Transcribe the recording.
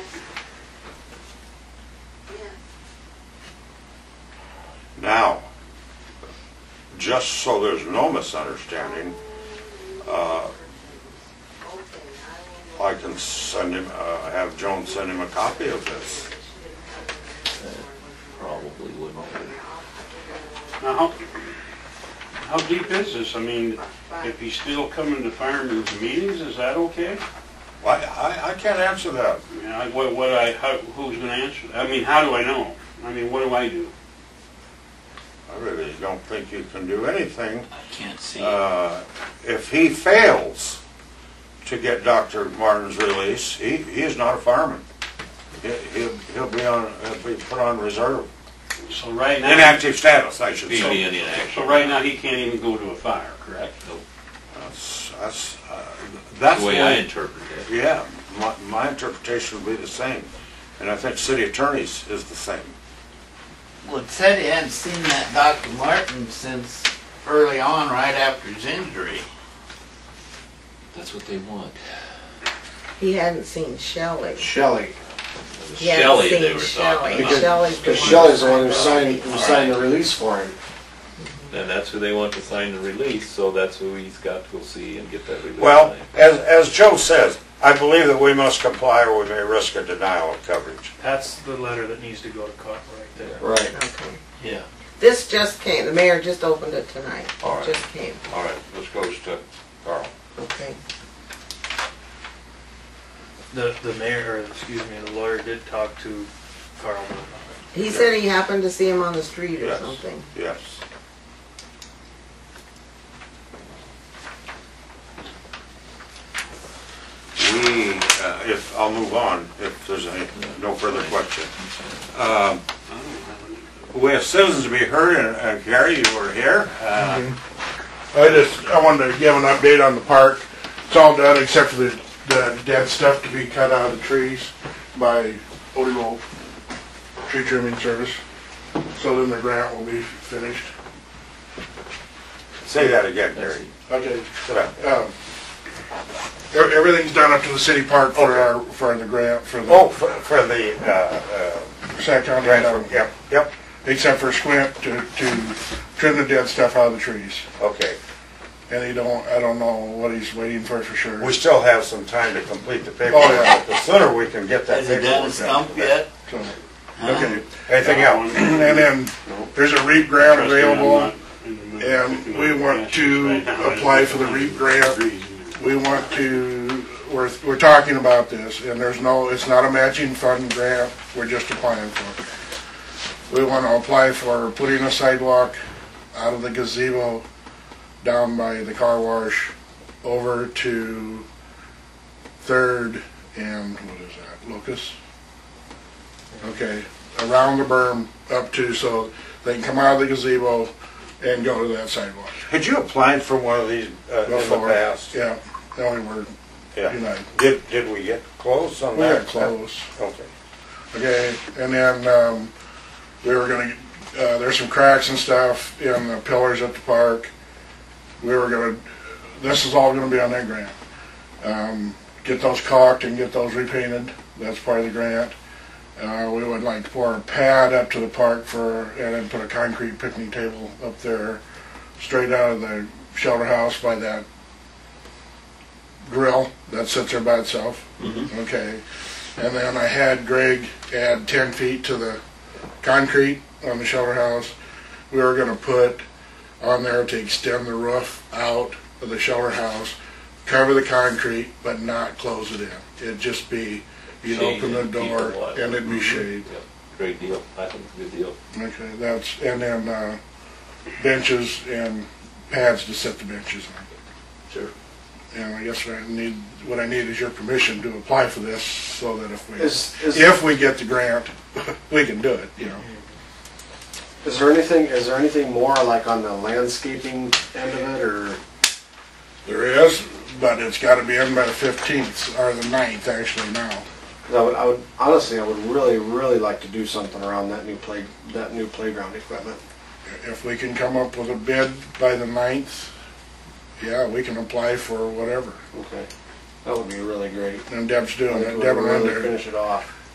just so there's no misunderstanding, uh, I can send him, uh, have Joan send him a copy of this. Probably wouldn't. Now, how, how deep is this? I mean, if he's still coming to firemen's meetings, is that okay? I, I, I can't answer that. I mean, I, what, what I, how, who's gonna answer? I mean, how do I know? I mean, what do I do? I really don't think you can do anything. I can't see. Uh, If he fails to get Dr. Martin's release, he, he is not a fireman. He- He'll, he'll be on, he'll be put on reserve, So right now, inactive status, I should Be say. in inaction. so right now, he can't even go to a fire, correct? That's, that's, uh, that's The way I why, interpret it. yeah, my, my interpretation would be the same. And I think city attorneys is the same. Well, it said he hadn't seen that Dr. Martin since early on, right after his injury. That's what they want. He hadn't seen Shelley. Shelley, It was He hadn't Shelley they seen were Shelley. talking about. Shelley's the because Shelley's the one who that- signed, who signed the release for him. And that's who they want to sign the release, so that's who he's got to go see and get that release. Well, signed. as, as Joe says, I believe that we must comply or we may risk a denial of coverage. That's the letter that needs to go to court right there. Right. Okay. Yeah. This just came, the mayor just opened it tonight. All right. Just came, All right, this goes to Carl. okay. The, the mayor, or excuse me, the lawyer did talk to Carl about it. He said he happened to see him on the street or Yes. something. Yes. We, uh, if, I'll move on if there's any, no further question. Um, We have citizens to be heard, and uh, Gary, you were here. Uh, I just, I wanted to give an update on the park. It's all done except for the, the dead stuff to be cut out of the trees by Odie Wolf Tree Trimming Service. So then the grant will be finished. Say that again, Gary. That's- Okay. Sit down. Um, e- everything's done up to the city park for our, for the grant, for Oh, the for for the, uh, uh, Sack County. transfer, um, yep, yep, Except for Squint to, to trim the dead stuff out of the trees. okay. And he don't, I don't know what he's waiting for for sure. We still have some time to complete the paperwork, Oh, yeah. but the sooner we can get that Has he paperwork. done done, a stump the better. yet? So, Okay. Anything else? And then there's a REAP grant available, and we want to apply for the REAP grant. We want to, we're, we're talking about this, and there's no, it's not a matching fund grant, we're just applying for it. We want to apply for putting a sidewalk out of the gazebo down by the car wash over to Third and, what is that, Locust? Okay, around the berm up to, so they can come out of the gazebo and go to that sidewalk. Had you applied for one of these uh, in the Before, past? Yeah, that only word, Yeah. United. Did, did we get close on We that? got close. Okay. Okay, and then, um, we were gonna, uh, there's some cracks and stuff in the pillars at the park. We were gonna, this is all gonna be on that grant. Um, get those caulked and get those repainted, that's part of the grant. Uh, we would like to pour a pad up to the park for, and then put a concrete picnic table up there, straight out of the shelter house by that grill that sits there by itself. Okay, and then I had Greg add ten feet to the concrete on the shelter house. We were gonna put on there to extend the roof out of the shelter house, cover the concrete, but not close it in. It'd just be, you'd Shade open the and keep Mm-hmm. door it wide. and it'd be Yep. shade. Mhm. Great deal. I think it's a good deal. Okay, that's, and then, uh, benches and pads to set the benches on. Sure. And I guess what I need, what I need is your permission to apply for this, so that if we, Is, is, if we get the grant, we can do it, you know. is there anything, is there anything more like on the landscaping end of it, or? There is, but it's gotta be in by the fifteenth, or the ninth, actually, now. 'cause I would, I would, honestly, I would really, really like to do something around that new play, that new playground equipment. If we can come up with a bid by the ninth, yeah, we can apply for whatever. Okay. That would be really great. And Deb's I doing think it, it would Deb and really Linda, Finish it off.